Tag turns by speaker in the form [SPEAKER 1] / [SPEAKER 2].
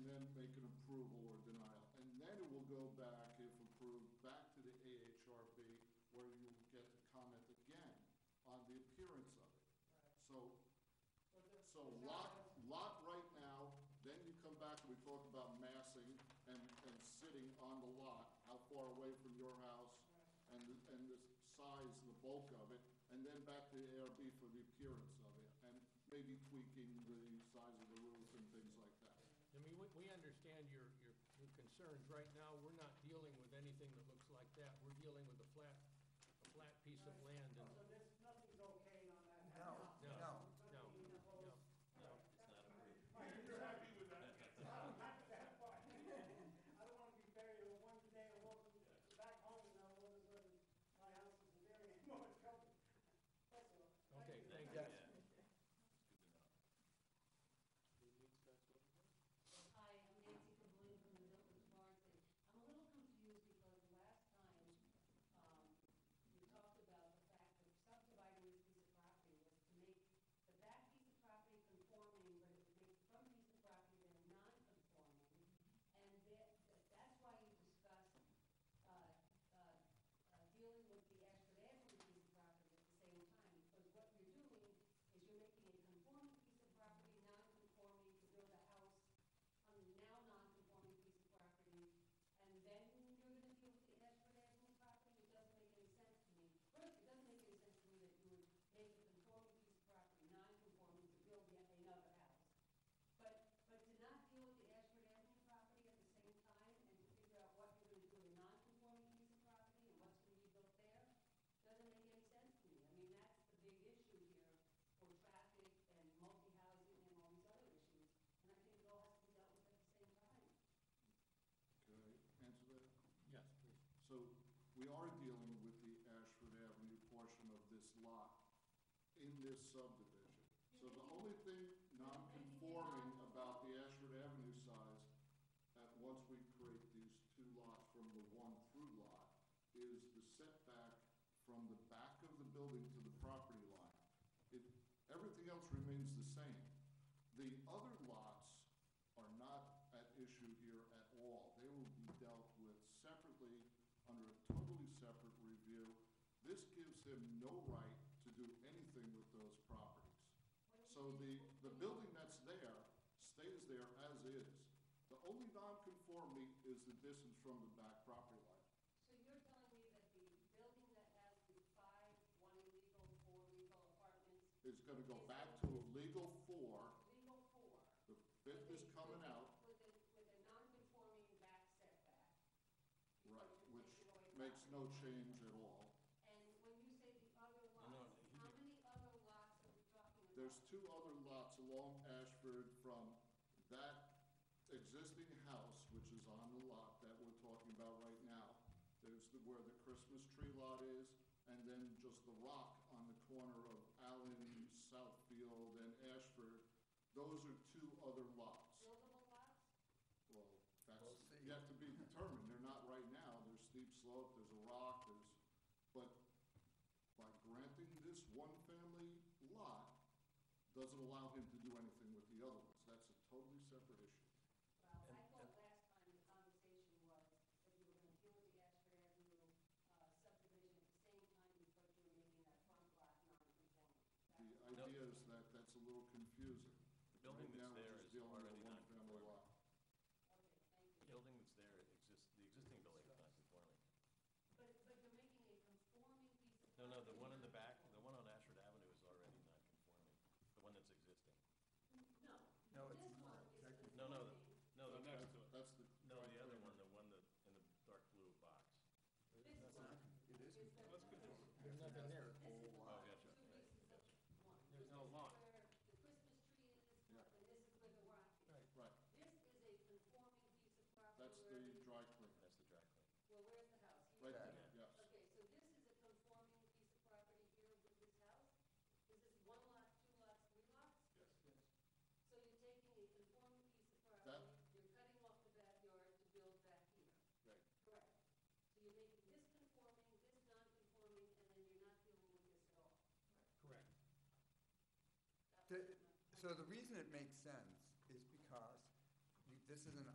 [SPEAKER 1] back, if approved, back to the AHRB where you will get to comment again on the appearance of it.
[SPEAKER 2] Right.
[SPEAKER 1] So,
[SPEAKER 2] But there-
[SPEAKER 1] so
[SPEAKER 2] there's not
[SPEAKER 1] lot,
[SPEAKER 2] much-
[SPEAKER 1] lot right now, then you come back and we talk about massing and, and sitting on the lot, how far away from your house and, the- and the size, the bulk of it, and then back to the ARB for the appearance of it and maybe tweaking the size of the roof and things like that.
[SPEAKER 3] I mean, we, we understand your, your, your concerns. Right now, we're not dealing with anything that looks like that. We're dealing with a flat, a flat piece of land and,
[SPEAKER 2] So there's, nothing's okay on that?
[SPEAKER 4] No,
[SPEAKER 3] no,
[SPEAKER 4] no.
[SPEAKER 2] Nothing is opposed?
[SPEAKER 3] no, no.
[SPEAKER 2] Right, you're happy with that? I'm happy with that part. I don't want to be buried in one day and walk back home and now all of a sudden my house is there and more trouble. That's all.
[SPEAKER 3] Okay, thank you.
[SPEAKER 4] Yes.
[SPEAKER 5] Hi, I'm Nancy Cavoni from the Milton Florence. I'm a little confused because last time, um, you talked about the fact that subdividing this piece of property was to make the back piece of property conforming, but it would make some piece of property then non-conforming. And that, that's why you discussed, uh, uh, uh, dealing with the Ashford Avenue piece of property at the same time. Because what you're doing is you're making a conforming piece of property non-conforming to build a house on the now non-conforming piece of property, and then you're gonna deal with the Ashford Avenue property, it doesn't make any sense to me. First, it doesn't make any sense to me that you would make a conforming piece of property non-conforming to build yet another house. But, but to not deal with the Ashford Avenue property at the same time and to figure out what you're gonna do with a non-conforming piece of property and what's gonna be built there, doesn't make any sense to me. I mean, that's the big issue here for traffic and multi-housing and all these other issues. And I think it all has to be dealt with at the same time.
[SPEAKER 1] Can I answer that?
[SPEAKER 3] Yes, please.
[SPEAKER 1] So we are dealing with the Ashford Avenue portion of this lot in this subdivision. So the only thing non-conforming about the Ashford Avenue size, at once we create these two lots from the one through lot, is the setback from the back of the building to the property line. It, everything else remains the same. The other lots are not at issue here at all. They will be dealt with separately, under a totally separate review. This gives him no right to do anything with those properties. So the, the building that's there stays there as is. The only nonconformity is the distance from the back property line.
[SPEAKER 5] So you're telling me that the building that has the five, one illegal, four legal apartments,
[SPEAKER 1] It's gonna go back to a legal four,
[SPEAKER 5] legal four.
[SPEAKER 1] the fifth is
[SPEAKER 5] with a-
[SPEAKER 1] coming
[SPEAKER 5] with a-
[SPEAKER 1] out,
[SPEAKER 5] With a, with a non-conforming back setback.
[SPEAKER 1] right, which
[SPEAKER 5] Because you're taking away
[SPEAKER 1] makes no
[SPEAKER 5] property.
[SPEAKER 1] change at all.
[SPEAKER 5] And when you say the other
[SPEAKER 6] No, no,
[SPEAKER 5] lots,
[SPEAKER 6] he-
[SPEAKER 5] how many other lots are we talking about?
[SPEAKER 1] There's two other lots along Ashford from that existing house, which is on the lot that we're talking about right now. There's the, where the Christmas tree lot is, and then just the rock on the corner of Allen, Southfield, and Ashford. Those are two other lots.
[SPEAKER 5] Buildable lots?
[SPEAKER 1] Well,
[SPEAKER 4] We'll
[SPEAKER 1] that's
[SPEAKER 4] see.
[SPEAKER 1] yet to be determined, they're not right now, there's steep slope, there's a rock, there's, but by granting this one-family lot, doesn't allow him to do anything with the other ones, that's a totally separate issue.
[SPEAKER 5] Well, I
[SPEAKER 6] And-
[SPEAKER 5] thought last time the conversation was that you were gonna deal with the Ashford Avenue uh, subdivision at the same time as what you were making that front lot non-conforming. That-
[SPEAKER 1] The idea is that that's a little confusing.
[SPEAKER 6] The building
[SPEAKER 1] Right now, we're
[SPEAKER 6] that's there
[SPEAKER 1] just
[SPEAKER 6] is
[SPEAKER 1] dealing with a
[SPEAKER 6] already
[SPEAKER 1] one-family
[SPEAKER 6] non-conforming.
[SPEAKER 1] lot.
[SPEAKER 5] Okay, thank
[SPEAKER 6] The
[SPEAKER 5] you.
[SPEAKER 6] building that's there exists, the existing building is not conforming.
[SPEAKER 5] But, but you're making a conforming piece of.
[SPEAKER 6] No, no, the
[SPEAKER 5] property
[SPEAKER 6] one in the back, the
[SPEAKER 5] non-conforming.
[SPEAKER 6] one on Ashford Avenue is already not conforming, the one that's existing.
[SPEAKER 5] No.
[SPEAKER 4] No, it's
[SPEAKER 5] This one
[SPEAKER 4] not.
[SPEAKER 5] is
[SPEAKER 4] Technically.
[SPEAKER 6] No, no, the-
[SPEAKER 5] conforming.
[SPEAKER 6] no, the,
[SPEAKER 1] That's the.
[SPEAKER 6] no, the other one, the one that, in the dark blue box.
[SPEAKER 5] This one.
[SPEAKER 4] It is.
[SPEAKER 5] is the-
[SPEAKER 3] There's nothing there.
[SPEAKER 5] This is the
[SPEAKER 6] Oh,
[SPEAKER 5] lot,
[SPEAKER 6] gotcha.
[SPEAKER 5] two pieces of one.
[SPEAKER 3] There's no
[SPEAKER 5] This is
[SPEAKER 3] lot.
[SPEAKER 5] where The Christmas tree is,
[SPEAKER 1] Yeah.
[SPEAKER 5] and this is where the rock is.
[SPEAKER 3] Right.
[SPEAKER 1] Right,
[SPEAKER 5] This is a conforming piece of property.
[SPEAKER 1] that's
[SPEAKER 5] where
[SPEAKER 1] the dry cleaner,
[SPEAKER 6] That's the dry clean.
[SPEAKER 5] Well, where's the house? Here?
[SPEAKER 1] right
[SPEAKER 4] Yeah.
[SPEAKER 1] there, yes.
[SPEAKER 5] Okay, so this is a conforming piece of property here with this house? Is this one lot, two lots, three lots?
[SPEAKER 1] Yes.
[SPEAKER 5] So you're taking a conforming piece of property,
[SPEAKER 1] That-
[SPEAKER 5] you're cutting off the backyard to build back here.
[SPEAKER 1] Right,
[SPEAKER 5] Correct. So you're making this conforming, this non-conforming, and then you're not dealing with this at all. That
[SPEAKER 3] Correct.
[SPEAKER 5] was
[SPEAKER 4] The-
[SPEAKER 5] my-
[SPEAKER 4] So the reason it makes sense is because you- this is an